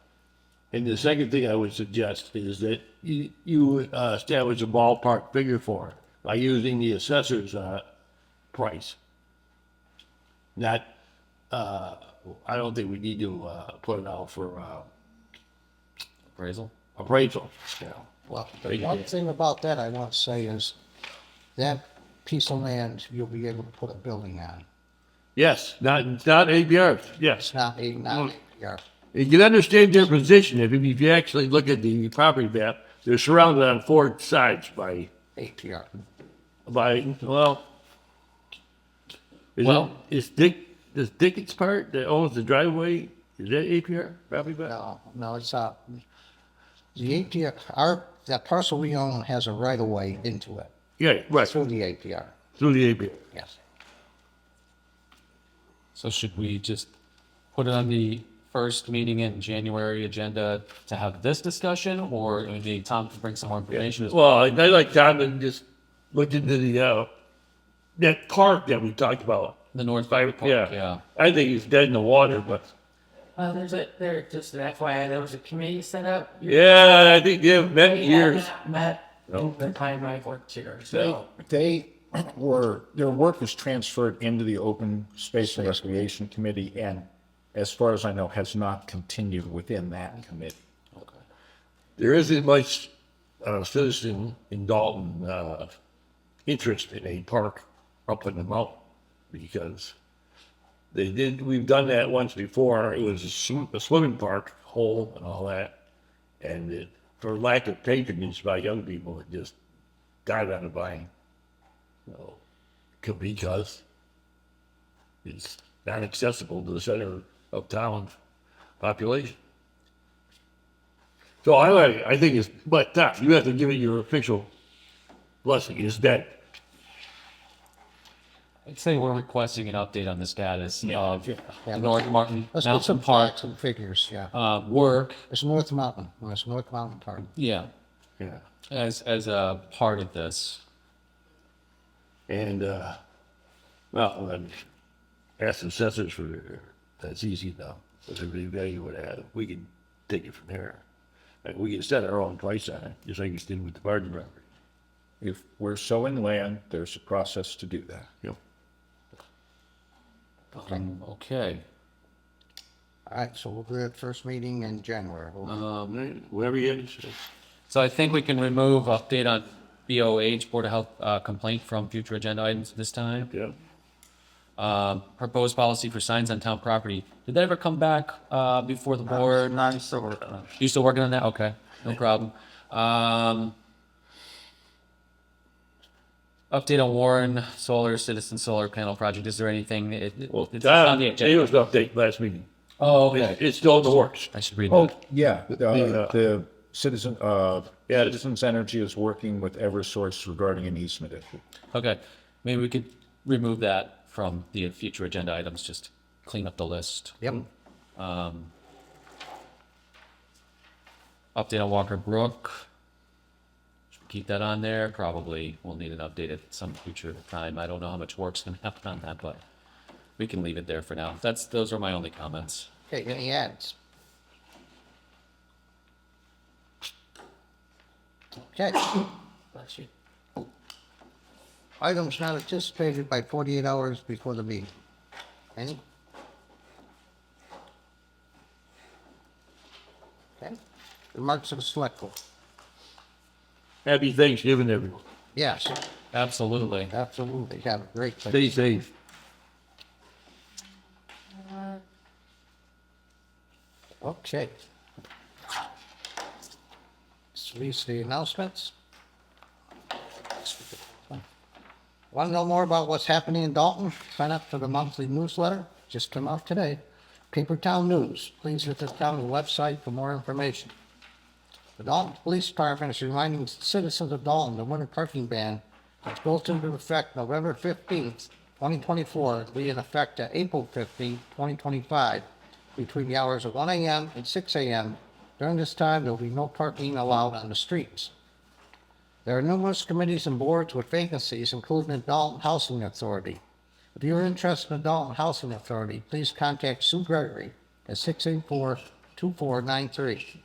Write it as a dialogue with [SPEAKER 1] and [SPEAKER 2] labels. [SPEAKER 1] And the second thing I would suggest is that you, you uh, establish a ballpark figure for it by using the assessor's, uh, price. Not, uh, I don't think we need to, uh, put it out for, uh,
[SPEAKER 2] appraisal.
[SPEAKER 1] appraisal.
[SPEAKER 3] Well,
[SPEAKER 1] They
[SPEAKER 3] the
[SPEAKER 1] can.
[SPEAKER 3] one thing about that I want to say is that piece of land, you'll be able to put a building on,
[SPEAKER 1] Yes, not, not APRs, yes.
[SPEAKER 3] not a, not your.
[SPEAKER 1] You can understand their position if, you- if you actually look at the property map, they're surrounded on four sides by,
[SPEAKER 3] APR.
[SPEAKER 1] by, well. Is it,
[SPEAKER 2] Well-
[SPEAKER 1] is Dick, is Dickens part that owns the driveway, is that APR property map?
[SPEAKER 3] No, no, it's not. The APR, our, that parcel we own has a right of way into it
[SPEAKER 1] Yeah, right,
[SPEAKER 3] through the APR,
[SPEAKER 1] through the APR.
[SPEAKER 3] yes.
[SPEAKER 2] So should we just put it on the first meeting in January agenda to have this discussion or maybe Tom can bring some more information? as well?
[SPEAKER 1] Well, I I like Tom and just looked into the, uh, that park that we talked about.
[SPEAKER 2] The North
[SPEAKER 1] By-
[SPEAKER 2] Park,
[SPEAKER 1] Yeah,
[SPEAKER 2] yeah.
[SPEAKER 1] I think it's dead in the water, but,
[SPEAKER 4] Well, Uh, there's a, there, just an FYI, there was a committee set up. You-
[SPEAKER 1] yeah, I think they have many
[SPEAKER 4] we
[SPEAKER 1] years.
[SPEAKER 4] have not Met in the time I've worked here,
[SPEAKER 5] They,
[SPEAKER 4] so.
[SPEAKER 5] they were, their work was transferred into the Open Space and Recreation Committee and as far as I know, has not continued within that committee.
[SPEAKER 1] There isn't much, uh, citizen in Dalton, uh, interest in a park up in the mountain because they did, we've done that once before. It was a sw- a swimming park, hole and all that. And it, for lack of patronage by young people, it just died on the vine. So, could be because it's not accessible to the center of town population. So I like, I think it's, but Doc, you have to give it your official blessing. It's dead.
[SPEAKER 2] I'd say we're requesting an update on the status of
[SPEAKER 3] Yeah.
[SPEAKER 2] the North Martin
[SPEAKER 3] Let's get
[SPEAKER 2] Mountain
[SPEAKER 3] some
[SPEAKER 2] Park,
[SPEAKER 3] facts and figures, yeah.
[SPEAKER 2] uh, work.
[SPEAKER 3] It's North Mountain, it's North Mountain Park.
[SPEAKER 2] Yeah,
[SPEAKER 1] Yeah.
[SPEAKER 2] as, as a part of this.
[SPEAKER 1] And, uh, well, then ask the assessors for their, that's easy enough. But they reevaluate that. We can take it from there. And we can set our own price on it, just like we did with the garden property.
[SPEAKER 5] If we're sowing land, there's a process to do that.
[SPEAKER 1] Yep.
[SPEAKER 2] Um, Okay,
[SPEAKER 3] All right, so we'll do it first meeting in January. We'll-
[SPEAKER 2] Uh-huh.
[SPEAKER 1] Um, whatever you have to say.
[SPEAKER 2] so I think we can remove update on BOH, Board of Health uh, complaint from future agenda items this time.
[SPEAKER 1] Yeah.
[SPEAKER 2] Um, proposed policy for signs on town property. Did that ever come back uh, before the board?
[SPEAKER 4] Not so.
[SPEAKER 2] You still working on that? Okay, no problem. Um, update on Warren Solar Citizen Solar Panel Project. Is there anything? It, it-
[SPEAKER 1] Well,
[SPEAKER 2] it's on the
[SPEAKER 1] It
[SPEAKER 2] agenda.
[SPEAKER 1] was update last meeting.
[SPEAKER 2] Oh,
[SPEAKER 1] It's
[SPEAKER 2] okay.
[SPEAKER 1] it's still in the works.
[SPEAKER 2] I should read
[SPEAKER 5] Oh,
[SPEAKER 2] that.
[SPEAKER 5] yeah, the,
[SPEAKER 1] The, uh,
[SPEAKER 5] the citizen, uh,
[SPEAKER 1] Yeah.
[SPEAKER 5] Citizens Energy is working with Eversource regarding an easement issue.
[SPEAKER 2] Okay, maybe we could remove that from the future agenda items. Just clean up the list.
[SPEAKER 3] Yep.
[SPEAKER 2] Update on Walker Brook. Should we Keep that on there. Probably we'll need an update at some future time. I don't know how much work's gonna happen on that, but we can leave it there for now. That's, those are my only comments.
[SPEAKER 3] Okay, any ads? Okay,
[SPEAKER 4] Bless you.
[SPEAKER 3] items not anticipated by forty-eight hours before the meeting. Any? Okay, remarks of the select board.
[SPEAKER 1] Happy Thanksgiving, everyone.
[SPEAKER 3] Yes,
[SPEAKER 2] Absolutely.
[SPEAKER 3] absolutely, have a great day.
[SPEAKER 1] Stay safe.
[SPEAKER 3] Okay. Let's Release the announcements. Want to know more about what's happening in Dalton? Sign up for the monthly newsletter, just come out today. Paper Town News, please visit the town website for more information. The Dalton Police Department is reminding citizens of Dalton the winter parking ban which goes into effect November fifteenth, twenty twenty-four, will be in effect at April fifteenth, twenty twenty-five, between the hours of one AM and six AM. During this time, there will be no parking allowed on the streets. There are numerous committees and boards with vacancies, including the Dalton Housing Authority. If you're interested in the Dalton Housing Authority, please contact Sue Gregory at 684-2493.